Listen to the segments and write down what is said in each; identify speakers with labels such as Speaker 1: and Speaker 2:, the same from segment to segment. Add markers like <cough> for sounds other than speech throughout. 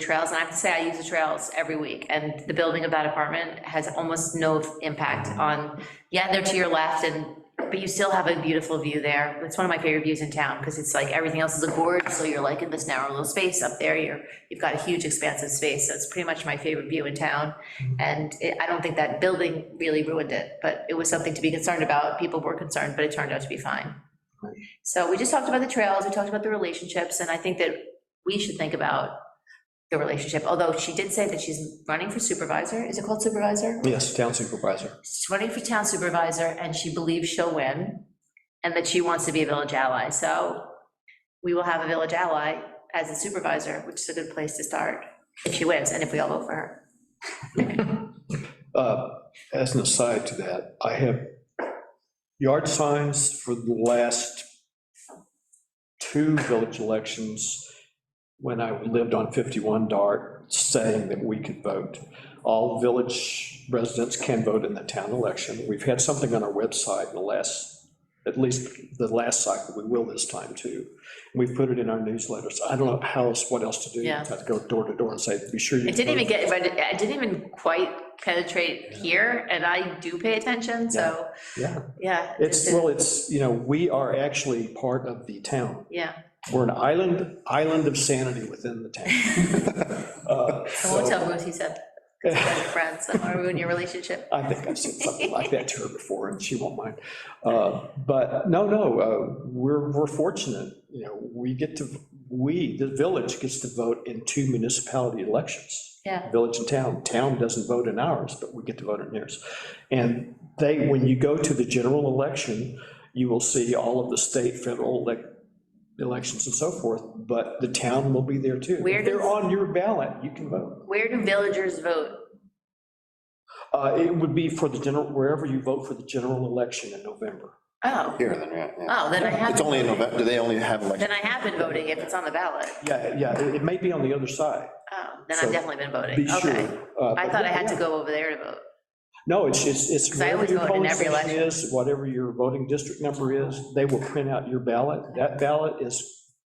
Speaker 1: trails, and I have to say, I use the trails every week, and the building of that apartment has almost no impact on, yeah, they're to your left, and, but you still have a beautiful view there. It's one of my favorite views in town, because it's like, everything else is a gorge, so you're like in this narrow little space up there, you're, you've got a huge expansive space, so it's pretty much my favorite view in town. And it- I don't think that building really ruined it, but it was something to be concerned about, people were concerned, but it turned out to be fine. So we just talked about the trails, we talked about the relationships, and I think that we should think about the relationship, although she did say that she's running for supervisor, is it called supervisor?
Speaker 2: Yes, town supervisor.
Speaker 1: She's running for town supervisor, and she believes she'll win, and that she wants to be a village ally, so we will have a village ally as a supervisor, which is a good place to start, if she wins, and if we all vote for her.
Speaker 2: Uh, As an aside to that, I have yard signs for the last two village elections when I lived on 51 Dart, saying that we could vote. All village residents can vote in the town election. We've had something on our website in the last, at least the last cycle, we will this time too. We've put it in our newsletters. I don't know how else, what else to do.
Speaker 1: Yeah.
Speaker 2: Have to go door to door and say, be sure you.
Speaker 1: It didn't
Speaker 2: vote."
Speaker 1: even get, it didn't even quite penetrate here, and I do pay attention, so,
Speaker 2: Yeah.
Speaker 1: yeah. it
Speaker 2: It's,
Speaker 1: didn't-
Speaker 2: well, it's, you know, we are actually part of the town.
Speaker 1: Yeah,
Speaker 2: We're an island, island of sanity within the town. Uh,
Speaker 1: I won't
Speaker 2: so-
Speaker 1: tell Ruth, he said,
Speaker 2: <laughs>
Speaker 1: friends, I want to ruin your relationship.
Speaker 2: I think I've said something like that to her before, and she won't mind. Uh, But, no, no, uh, we're, we're fortunate, you know, we get to, we, the village gets to vote in two municipality elections.
Speaker 1: Yeah.
Speaker 2: Village and town. Town doesn't vote in ours, but we get to vote in theirs. And they, when you go to the general election, you will see all of the state, federal elec- elections and so forth, but the town will be there too.
Speaker 1: Where
Speaker 2: If they're
Speaker 1: does-
Speaker 2: on your ballot, you can vote.
Speaker 1: Where do villagers vote?
Speaker 2: Uh, It would be for the general, wherever you vote for the general election in November.
Speaker 1: Oh,
Speaker 3: Here, then, yeah, yeah.
Speaker 1: oh, then I
Speaker 3: It's
Speaker 1: have,
Speaker 3: only in November, do they only have election?
Speaker 1: then I have been voting if it's on the ballot.
Speaker 2: Yeah, yeah, it it may be on the other side,
Speaker 1: Oh, then I've
Speaker 2: So,
Speaker 1: definitely been voting,
Speaker 2: be sure.
Speaker 1: okay.
Speaker 2: Uh,
Speaker 1: I
Speaker 2: but
Speaker 1: thought I
Speaker 2: yeah,
Speaker 1: had to
Speaker 2: yeah.
Speaker 1: go over there to vote.
Speaker 2: No, it's, it's, it's
Speaker 1: 'Cause I
Speaker 2: wherever
Speaker 1: always
Speaker 2: your
Speaker 1: vote in
Speaker 2: polling
Speaker 1: every
Speaker 2: station is, whatever your voting district number is, they will print out your ballot. That ballot is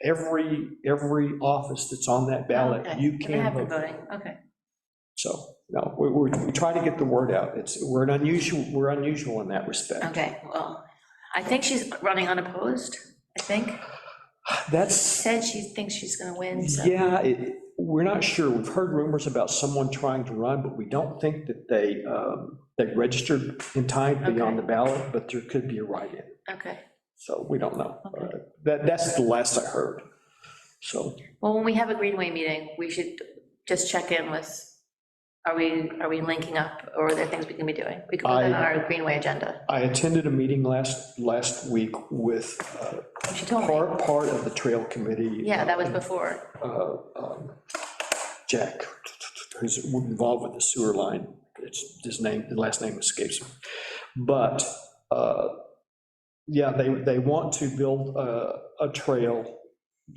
Speaker 2: every, every office that's on that ballot,
Speaker 1: Okay,
Speaker 2: you
Speaker 1: Then I have
Speaker 2: can
Speaker 1: been
Speaker 2: vote.
Speaker 1: voting, okay.
Speaker 2: So, no, we, we we try to get the word out. It's, we're an unusual, we're unusual in that respect.
Speaker 1: Okay, well, I think she's running unopposed, I think.
Speaker 2: That's.
Speaker 1: Said she thinks she's gonna win, so.
Speaker 2: Yeah, it, we're not sure. We've heard rumors about someone trying to run, but we don't think that they, um, they registered in time to be on
Speaker 1: Okay.
Speaker 2: the ballot, but there could be a write-in,
Speaker 1: Okay.
Speaker 2: so we don't know.
Speaker 1: Okay.
Speaker 2: Uh, That, that's the last I heard. So,
Speaker 1: Well, when we have a Greenway meeting, we should just check in with, are we, are we linking up, or are there things we can be doing? We could put that on
Speaker 2: I-
Speaker 1: our Greenway agenda.
Speaker 2: I attended a meeting last, last week with uh,
Speaker 1: She told me,
Speaker 2: part, part of the trail committee.
Speaker 1: yeah, that was before.
Speaker 2: uh, um, Jack, who's involved with the sewer line, it's, his name, the last name escapes me. But, uh, yeah, they, they want to build uh, a, a trail.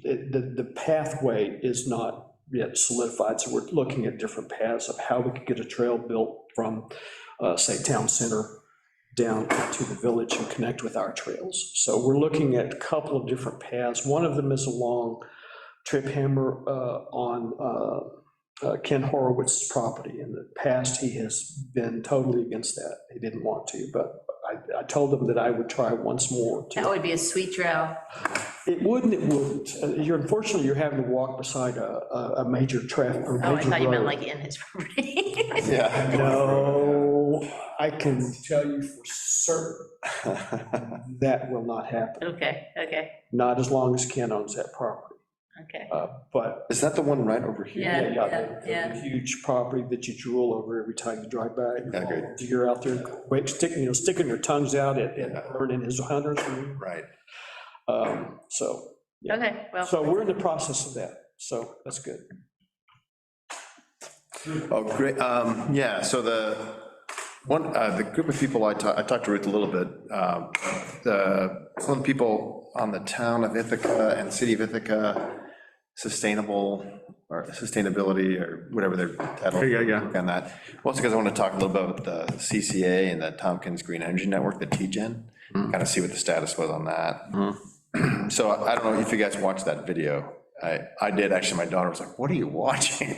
Speaker 2: It- The, the pathway is not yet solidified, so we're looking at different paths of how we could get a trail built from, uh, say, town center down to the village and connect with our trails. So we're looking at a couple of different paths. One of them is along Trip Hammer uh, on uh, uh, Ken Horowitz's property. In the past, he has been totally against that. He didn't want to, but I, I told him that I would try once more. to-
Speaker 1: That would be a sweet trail.
Speaker 2: It wouldn't, it wouldn't. Uh, You're, unfortunately, you're having to walk beside a, a- a major traffic, a major
Speaker 1: Oh, I thought you meant
Speaker 2: road.
Speaker 1: like in his <laughs> property.
Speaker 3: Yeah. <laughs>
Speaker 2: No, I can tell you for certain, that will not happen,
Speaker 1: Okay, okay,
Speaker 2: not as long as Ken owns that property.
Speaker 1: okay.
Speaker 2: Uh, But
Speaker 3: Is that the one right over here?
Speaker 1: Yeah,
Speaker 2: Yeah,
Speaker 1: yeah,
Speaker 2: yeah, the huge property that you drool over every time you drive by.
Speaker 3: Yeah, agreed.
Speaker 2: You're out there, wait, sticking, you know, sticking your tongues out at, at Vern and his hunters,
Speaker 3: Right.
Speaker 2: um, so. yeah.
Speaker 1: Okay, well.
Speaker 2: So we're in the process of that, so that's good.
Speaker 3: Oh, great, um, yeah, so the, one, uh, the group of people I talked, I talked to Ruth a little bit, um, the, some of the people on the town of Ithaca and city of Ithaca, sustainable, or sustainability, or whatever their title.
Speaker 4: Yeah, yeah,
Speaker 3: On that, also because I want to talk a little bit about the CCA and the Tompkins Green Energy Network, the TGen,
Speaker 4: Mm-hmm.
Speaker 3: kind of see what the status was on that. <clears throat> So I I don't know if you guys watched that video, I, I did, actually, my daughter was like, what are you watching?